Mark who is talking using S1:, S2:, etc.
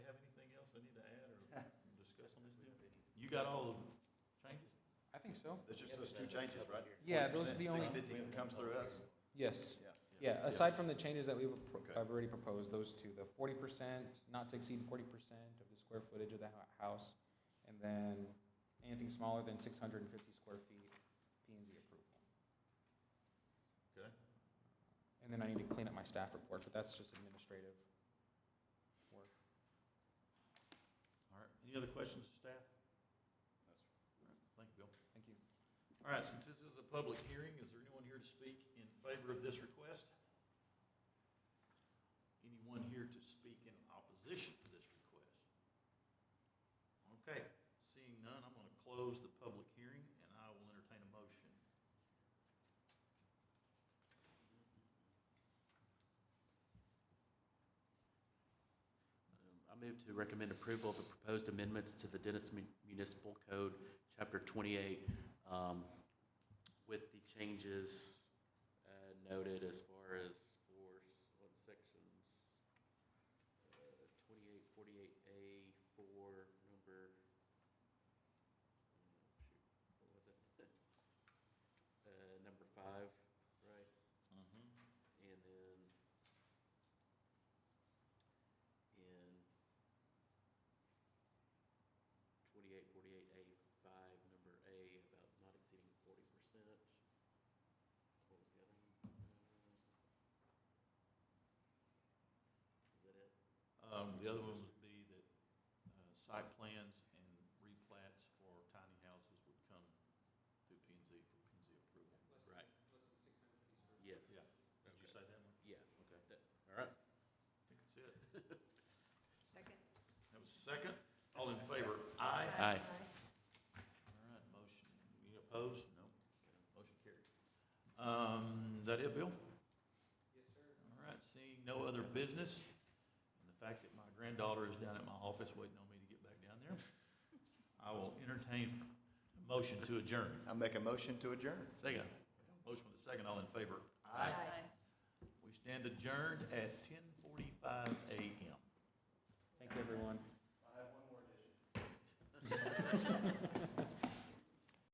S1: got all the changes?
S2: I think so.
S3: It's just those two changes, right?
S2: Yeah, those are the
S3: 40%,
S2: only-
S3: 650 comes through us,
S2: Yes.
S3: yeah.
S2: Yeah, aside from the changes that we've, appro-
S3: Okay.
S2: I've already proposed, those two, the forty percent, not to exceed forty percent of the square footage of the hou- house, and then anything smaller than six hundred and fifty square feet, P and Z approval.
S1: Okay.
S2: And then I need to clean up my staff report, but that's just administrative work.
S1: All right, any other questions, staff? All right, Thank you, Bill.
S2: Thank you.
S1: All right, since this is a public hearing, is there anyone here to speak in favor of this request? Anyone here to speak in opposition to this request? Okay, seeing none, I'm gonna close the public hearing, and I will entertain a motion.
S4: Um, I move to recommend approval of the proposed amendments to the Dennis Mun- Municipal Code, Chapter 28, um, with the changes uh, noted as far as for, s- what sections, uh, 28, 48A, 4, number, oh, shoot, what was it? Uh, Number 5, right? And then in twenty-eight, forty-eight, A five, number A, about not exceeding forty percent. What was the other one? Uh, Is that it?
S1: Um, the other one would be that, uh, site plans and replats for tiny houses would come through P and Z for P and Z approval.
S4: Right. Yes.
S1: Yeah. Did you
S4: Okay.
S1: say that one?
S4: Yeah,
S1: Okay.
S4: all right.
S1: I think that's it.
S5: Second.
S1: That was second. All in favor? Aye.
S4: Aye.
S1: All right, motion, you opposed? No. Motion carried. Um, is that it, Bill?
S2: Yes, sir.
S1: All right, seeing no other business, and the fact that my granddaughter is down at my office waiting on me to get back down there, I will entertain a motion to adjourn.
S3: I make a motion to adjourn.
S4: Second.
S1: Motion with a second, all in favor? We stand adjourned at ten forty-five AM.
S2: Thank you, everyone.
S3: I have one more addition.